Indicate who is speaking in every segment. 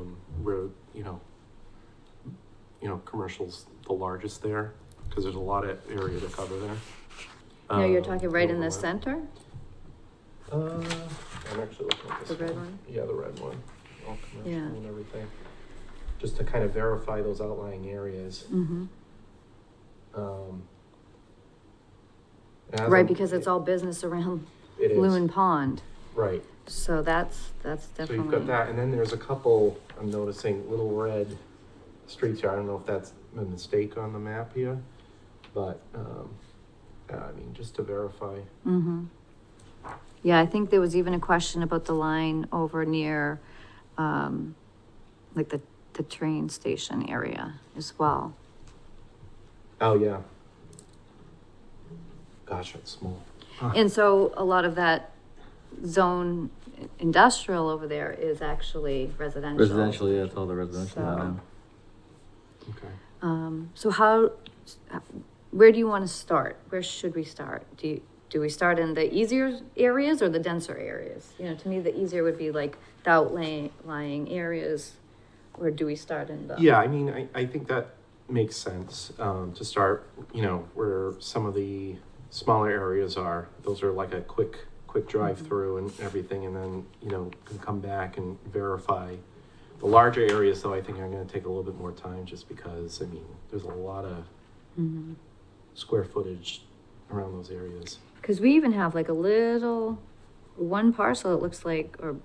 Speaker 1: um, you know, commercial's the largest there, because there's a lot of area to cover there.
Speaker 2: No, you're
Speaker 1: Um,
Speaker 2: talking right in the
Speaker 1: overlap.
Speaker 2: center,
Speaker 1: Uh, I'm actually looking at
Speaker 2: the
Speaker 1: this.
Speaker 2: red one?
Speaker 1: Yeah, the red one, all commercial
Speaker 2: Yeah.
Speaker 1: and everything, just to kind of verify those outlying areas.
Speaker 2: Mm-hmm.
Speaker 1: Um, as I'm-
Speaker 2: Right, because it's all business around
Speaker 1: It is,
Speaker 2: Loon Pond,
Speaker 1: right.
Speaker 2: so that's, that's
Speaker 1: So
Speaker 2: definitely.
Speaker 1: you've got that, and then there's a couple, I'm noticing, little red streets here. I don't know if that's a mistake on the map here, but, um, yeah, I mean, just to verify.
Speaker 2: Mm-hmm. Yeah, I think there was even a question about the line over near, um, like the, the train station area as well.
Speaker 1: Oh, yeah. Gosh, that's small.
Speaker 2: And so a lot of that zone industrial over there is actually residential.
Speaker 3: Residential, yeah, it's all the residential
Speaker 2: So-
Speaker 3: now.
Speaker 1: Okay.
Speaker 2: Um, so how, where do you want to start? Where should we start? Do you, do we start in the easier areas or the denser areas? You know, to me, the easier would be like the outlying areas, or do we start in the?
Speaker 1: Yeah, I mean, I, I think that makes sense, um, to start, you know, where some of the smaller areas are. Those are like a quick, quick drive-through and everything, and then, you know, can come back and verify. The larger areas, though, I think are gonna take a little bit more time, just because, I mean, there's a lot of
Speaker 2: Mhm.
Speaker 1: square footage around those areas.
Speaker 2: Cause we even have like a little, one parcel, it looks like, or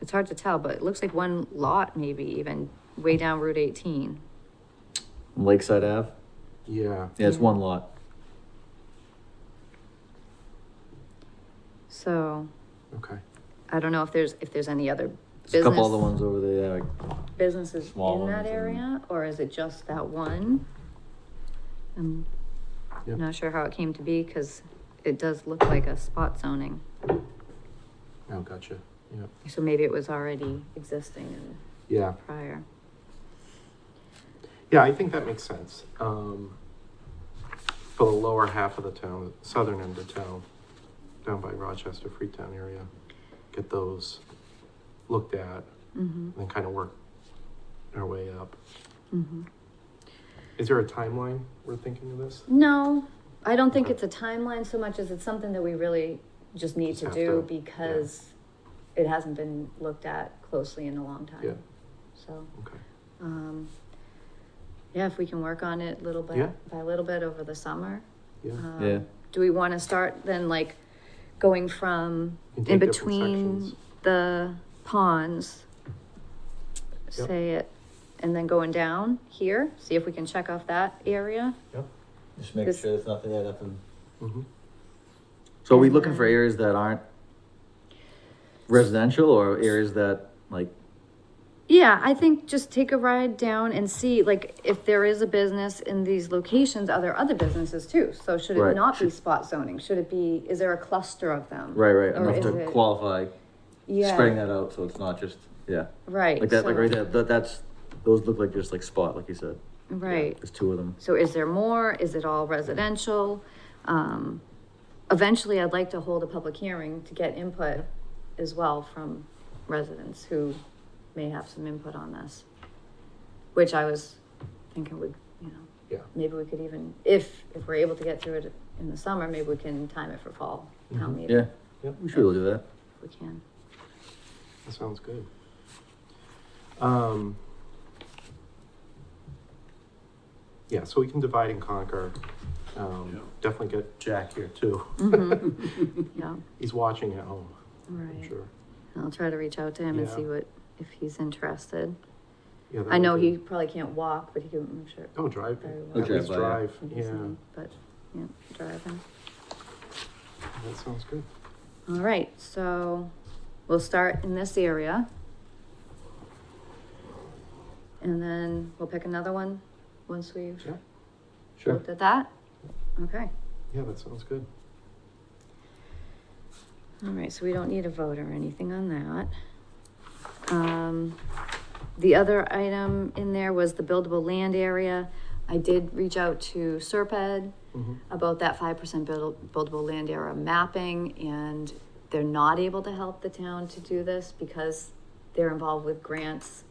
Speaker 2: it's hard to tell, but it looks like one lot maybe even way down Route eighteen.
Speaker 3: Lakeside Ave,
Speaker 1: Yeah,
Speaker 3: yeah, it's
Speaker 2: Yeah.
Speaker 3: one lot.
Speaker 2: So
Speaker 1: okay.
Speaker 2: I don't know if there's, if there's any other
Speaker 3: There's a couple
Speaker 2: Business.
Speaker 3: other ones over there, like,
Speaker 2: businesses
Speaker 3: Small
Speaker 2: in that
Speaker 3: ones and-
Speaker 2: area, or is it just that one? I'm
Speaker 1: Yeah.
Speaker 2: not sure how it came to be, cause it does look like a spot zoning,
Speaker 1: Oh, gotcha. Yeah,
Speaker 2: so maybe it was already existing in
Speaker 1: yeah,
Speaker 2: prior.
Speaker 1: yeah. I think that makes sense. Um, for the lower half of the town, southern end of town, down by Rochester, Freetown area, get those looked at, and
Speaker 2: Mm-hmm,
Speaker 1: then kind of work our way up.
Speaker 2: mm-hmm.
Speaker 1: Is there a timeline we're thinking of this?
Speaker 2: No, I don't think
Speaker 1: Okay.
Speaker 2: it's a timeline so much as it's something that we really just need
Speaker 1: Just
Speaker 2: to
Speaker 1: have
Speaker 2: do
Speaker 1: to- yeah.
Speaker 2: because it hasn't been looked at closely in a long time.
Speaker 1: Yeah.
Speaker 2: So,
Speaker 1: Okay.
Speaker 2: um, yeah, if we can work on it little by,
Speaker 1: Yeah.
Speaker 2: by little bit over the summer.
Speaker 1: Yeah.
Speaker 2: um,
Speaker 3: Yeah.
Speaker 2: Do we want to start then like going from
Speaker 1: You can take
Speaker 2: in
Speaker 1: different
Speaker 2: between
Speaker 1: sections.
Speaker 2: the ponds?
Speaker 1: Yep.
Speaker 2: Say it, and then going down here, see if we can check off that area.
Speaker 3: Just
Speaker 2: make This- sure
Speaker 3: there's nothing there, nothing.
Speaker 1: Mhm.
Speaker 3: So are we looking for areas that aren't residential or areas that, like,
Speaker 2: Yeah, I think just take a ride down and see, like, if there is a business in these locations, are there other businesses too? So should it
Speaker 3: Right.
Speaker 2: not be spot zoning? Should it be, is there a cluster of them?
Speaker 3: right, right,
Speaker 2: Or
Speaker 3: enough
Speaker 2: is
Speaker 3: to
Speaker 2: it-
Speaker 3: qualify,
Speaker 2: Yeah,
Speaker 3: spreading that out so it's not just, yeah.
Speaker 2: Right.
Speaker 3: Like that, like
Speaker 2: so-
Speaker 3: right there, that, that's, those look like just like spot, like you said.
Speaker 2: Right.
Speaker 3: There's two of them.
Speaker 2: So is there more? Is it all residential? Um, eventually, I'd like to hold a public hearing to get input as well from residents who may have some input on this. Which I was thinking would, you know.
Speaker 1: Yeah.
Speaker 2: Maybe we could even, if, if we're able to get through it in the summer, maybe we can time it for fall town
Speaker 1: Mhm.
Speaker 2: meeting.
Speaker 3: Yeah,
Speaker 1: Yep.
Speaker 3: we should be able to do that.
Speaker 2: If we can.
Speaker 1: That sounds good. Um, yeah, so we can divide and conquer. Um,
Speaker 4: Yeah.
Speaker 1: Definitely get Jack here too.
Speaker 2: Mhm. Yeah,
Speaker 1: He's watching at home, I'm
Speaker 2: right.
Speaker 1: sure.
Speaker 2: And I'll try to reach out to him and
Speaker 1: Yeah.
Speaker 2: see what, if he's interested.
Speaker 1: Yeah, that
Speaker 2: I
Speaker 1: would
Speaker 2: know
Speaker 1: be-
Speaker 2: he probably can't walk, but he can, I'm sure.
Speaker 1: Oh, drive.
Speaker 2: very well.
Speaker 3: He'll
Speaker 1: At least
Speaker 3: drive
Speaker 1: drive.
Speaker 2: Maybe
Speaker 1: Yeah,
Speaker 2: something, But, yeah, driving.
Speaker 1: that sounds good.
Speaker 2: All right, so we'll start in this area. And then we'll pick another one once we've
Speaker 1: Yeah,
Speaker 3: Sure.
Speaker 2: looked at that. Okay,
Speaker 1: yeah, that sounds good.
Speaker 2: all right, so we don't need a vote or anything on that. Um, the other item in there was the buildable land area. I did reach out to Serped.
Speaker 1: Mhm.
Speaker 2: about that five percent buildable land area mapping, and they're not able to help the town to do this because they're involved with grants